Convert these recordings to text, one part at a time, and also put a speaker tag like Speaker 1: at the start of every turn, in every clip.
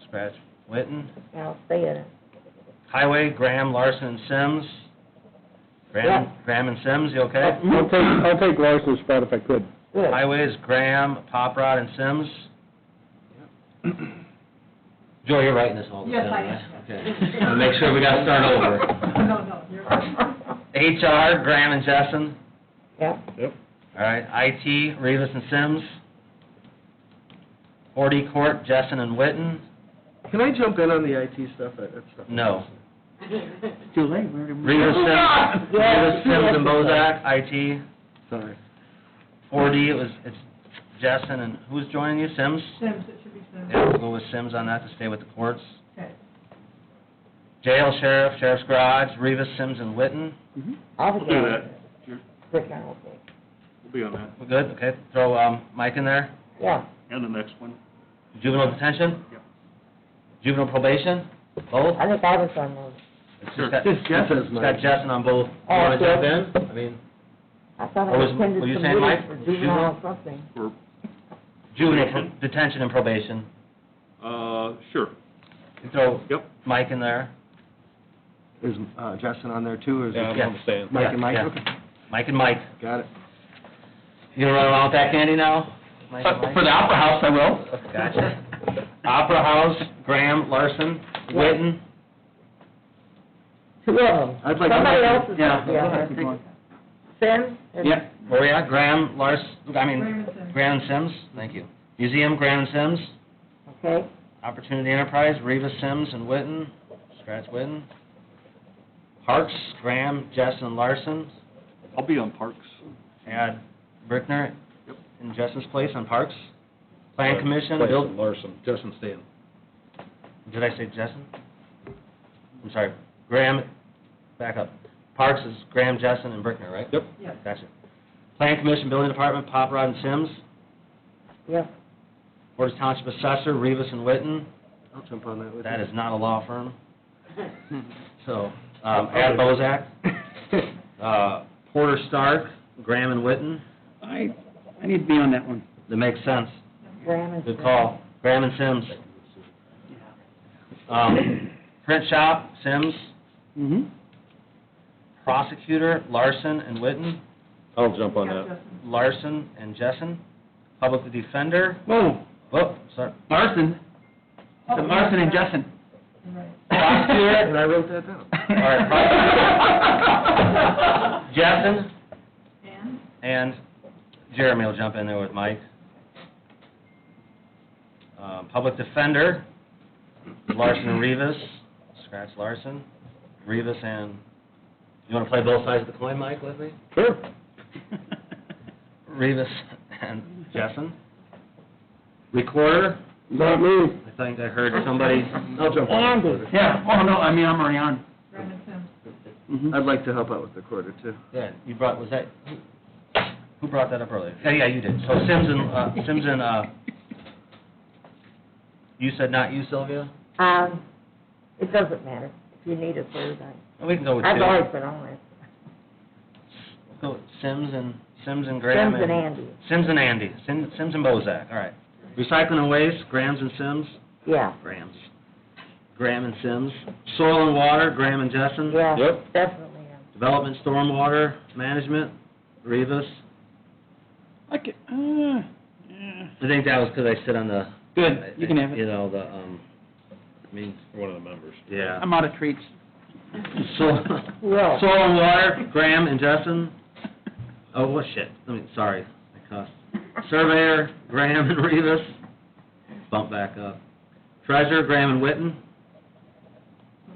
Speaker 1: Democrats, Witten.
Speaker 2: I'll stay in it.
Speaker 1: Highway, Graham, Larson, and Sims. Graham, Graham and Sims, you okay?
Speaker 3: I'll take, I'll take Larson's spot if I could.
Speaker 2: Good.
Speaker 1: Highway is Graham, Poprod, and Sims. Joy, you're writing this all
Speaker 4: Yes, I
Speaker 1: right?
Speaker 4: am.
Speaker 1: Okay. Wanna Make sure we gotta start over.
Speaker 4: No, no, you're right.
Speaker 1: HR, Graham and Jessen.
Speaker 2: Yep.
Speaker 1: All right, IT, Rivas and Sims. Forty Court, Jessen and Witten.
Speaker 5: Can I jump in on the IT stuff? That that stuff.
Speaker 1: No.
Speaker 3: Too late, we already.
Speaker 1: Rivas, Sims, Rivas,
Speaker 2: Oh, Yes,
Speaker 1: Sims, and
Speaker 2: yes.
Speaker 1: Bozak, IT.
Speaker 3: Sorry.
Speaker 1: Four D, it was, it's Jessen and who's joining you, Sims?
Speaker 4: Sims, it should be Sims.
Speaker 1: Yeah, we'll go with Sims on that to stay with the courts.
Speaker 4: Okay.
Speaker 1: Jail, sheriff, sheriff's garage, Rivas, Sims, and Witten.
Speaker 2: I'll
Speaker 6: We'll
Speaker 2: be
Speaker 6: do
Speaker 2: on it.
Speaker 6: that.
Speaker 2: Rick and I will be.
Speaker 6: We'll be on that.
Speaker 1: We're good, okay, throw, um, Mike in there.
Speaker 2: Yeah,
Speaker 6: And the next one.
Speaker 1: Juvenile detention?
Speaker 6: Yep.
Speaker 1: Juvenile probation, both?
Speaker 2: I think I was on those.
Speaker 1: It's
Speaker 6: Sure.
Speaker 1: just got-
Speaker 3: Just Jeff is
Speaker 1: It's got
Speaker 3: Mike.
Speaker 1: Justin on both. You
Speaker 2: Oh,
Speaker 1: wanna jump
Speaker 2: Jeff.
Speaker 1: in? I mean,
Speaker 2: I thought
Speaker 1: What
Speaker 2: I
Speaker 1: Oh, was-
Speaker 2: attended
Speaker 1: were you
Speaker 2: some
Speaker 1: saying,
Speaker 2: meetings
Speaker 1: Mike?
Speaker 2: for juvenile or something.
Speaker 6: Or,
Speaker 1: juvenile
Speaker 6: Probation.
Speaker 1: pro- detention and probation.
Speaker 6: uh, sure.
Speaker 1: You Throw
Speaker 6: Yep.
Speaker 1: Mike in there,
Speaker 3: Is, uh, Justin on there too, or is
Speaker 1: Yeah,
Speaker 3: it
Speaker 1: I'm
Speaker 3: just
Speaker 1: staying.
Speaker 3: Mike and Mike?
Speaker 1: Yeah.
Speaker 3: Okay,
Speaker 1: Mike and Mike.
Speaker 3: Got it.
Speaker 1: You gonna run around with that candy now? Mike and Mike?
Speaker 3: the Opera House, I will.
Speaker 1: Gotcha. Opera House, Graham, Larson, Witten.
Speaker 2: Two of them.
Speaker 3: I'd like to-
Speaker 2: Somebody else is
Speaker 3: Yeah.
Speaker 2: on the other. Sims? and-
Speaker 3: Yeah.
Speaker 1: Where we at? Graham, Lars, I mean,
Speaker 4: Raymond Sims.
Speaker 1: Graham and Sims, thank you. Museum, Graham and Sims.
Speaker 2: Okay,
Speaker 1: Opportunity Enterprise, Reva Sims and Witten, scratch Witten. Parks, Graham, Justin Larson,
Speaker 6: I'll be on Parks.
Speaker 1: add Brickner
Speaker 6: Yep.
Speaker 1: in Justin's place on Parks. Plan Commission, Bill,
Speaker 3: Larson, Justin staying.
Speaker 1: did I say Justin? I'm sorry, Graham, back up. Parks is Graham, Justin, and Brickner, right?
Speaker 3: Yep.
Speaker 4: Yes.
Speaker 1: Gotcha. Plan Commission, Building Department, Pop Rod and Sims.
Speaker 2: yeah.
Speaker 1: Board of Township Assessor, Rivas and Witten.
Speaker 3: I'll jump on that with you.
Speaker 1: That is not a law firm. So, um, add Bozak. Uh, Porter Stark, Graham and Witten,
Speaker 7: I, I need to be on that one.
Speaker 1: that makes sense.
Speaker 2: Graham and
Speaker 1: Good
Speaker 2: Sims.
Speaker 1: call. Graham and Sims. Um, print shop, Sims,
Speaker 7: Mm-hmm.
Speaker 1: prosecutor, Larson and Witten,
Speaker 3: I'll jump
Speaker 4: Yeah, Justin.
Speaker 1: Larson and Jessen, public defender,
Speaker 3: Oh.
Speaker 7: Whoa,
Speaker 1: whoop, sorry,
Speaker 7: Larson,
Speaker 4: Oh,
Speaker 7: the Larson and
Speaker 4: yeah.
Speaker 7: Justin.
Speaker 4: You're right.
Speaker 3: And
Speaker 1: prosecutor,
Speaker 3: I wrote that down.
Speaker 1: right,
Speaker 7: right.
Speaker 1: Jessen,
Speaker 4: And,
Speaker 1: and Jeremy will jump in there with Mike. Um, public defender, Larson and Rivas, scratch Larson, Rivas and, you wanna play both sides of the coin, Mike, with me?
Speaker 3: Sure.
Speaker 1: Rivas and Jessen. Recorder,
Speaker 3: Not me.
Speaker 1: I think I heard somebody,
Speaker 3: I'll jump on. the recorder.
Speaker 7: Yeah, oh, no, I mean, I'm already on.
Speaker 4: Raymond Sims.
Speaker 7: Mhm.
Speaker 3: I'd like to help out with the quarter too.
Speaker 1: yeah, you brought, was that, who- who brought that up earlier? Yeah, yeah, you did. So Sims and, uh, Sims and, uh, you said not you, Sylvia?
Speaker 2: Um, it doesn't matter. If you need a third, I,
Speaker 1: We can go with two.
Speaker 2: I've always been on it.
Speaker 1: Go with Sims and, Sims and Graham
Speaker 2: Sims
Speaker 1: and...
Speaker 2: and Andy,
Speaker 1: Sims and Andy, Sim- Sims and Bozak, all right. Recycling and waste, Grams and Sims?
Speaker 2: yeah,
Speaker 1: Grams. Graham and Sims. Soil and water, Graham and Jessen?
Speaker 2: yeah,
Speaker 3: Yep.
Speaker 2: definitely. am.
Speaker 1: Development stormwater management, Rivas.
Speaker 7: I ca- uh, yeah.
Speaker 1: I think that was because I sit on the...
Speaker 7: Good, you can have
Speaker 1: You
Speaker 7: it.
Speaker 1: know, the, um, I mean... One of the members. Yeah.
Speaker 7: I'm out of treats.
Speaker 1: Soil,
Speaker 2: Yeah.
Speaker 1: soil and water, Graham and Jessen? Oh, well, shit, I mean, sorry, I cussed. Surveyor, Graham and Rivas, bump back up. Treasurer, Graham and Witten.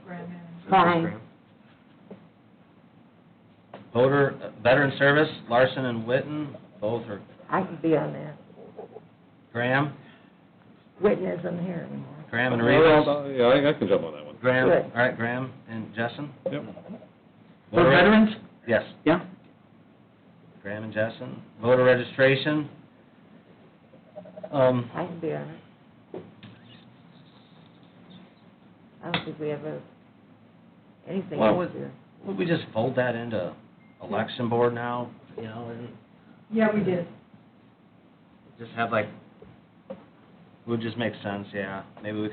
Speaker 4: Grand Manager.
Speaker 2: Fine.
Speaker 1: Voter, uh, Veteran Service, Larson and Witten, both are
Speaker 2: I can be on that.
Speaker 1: Graham,
Speaker 2: Whitney isn't here anymore.
Speaker 1: Graham and Rivas.
Speaker 3: Yeah, I can jump on that one.
Speaker 1: Graham,
Speaker 2: Good.
Speaker 1: all right, Graham and Jessen?
Speaker 3: Yep.
Speaker 7: For
Speaker 1: Voter-
Speaker 7: veterans?
Speaker 1: Yes,
Speaker 7: Yeah.
Speaker 1: Graham and Jessen. Voter registration. Um,
Speaker 2: I can be on it. I don't think we ever, anything
Speaker 1: Well-
Speaker 2: over there.
Speaker 1: would we just fold that into election board now, you know, and
Speaker 4: Yeah, we did.
Speaker 1: just have like, would just make sense, yeah. Maybe we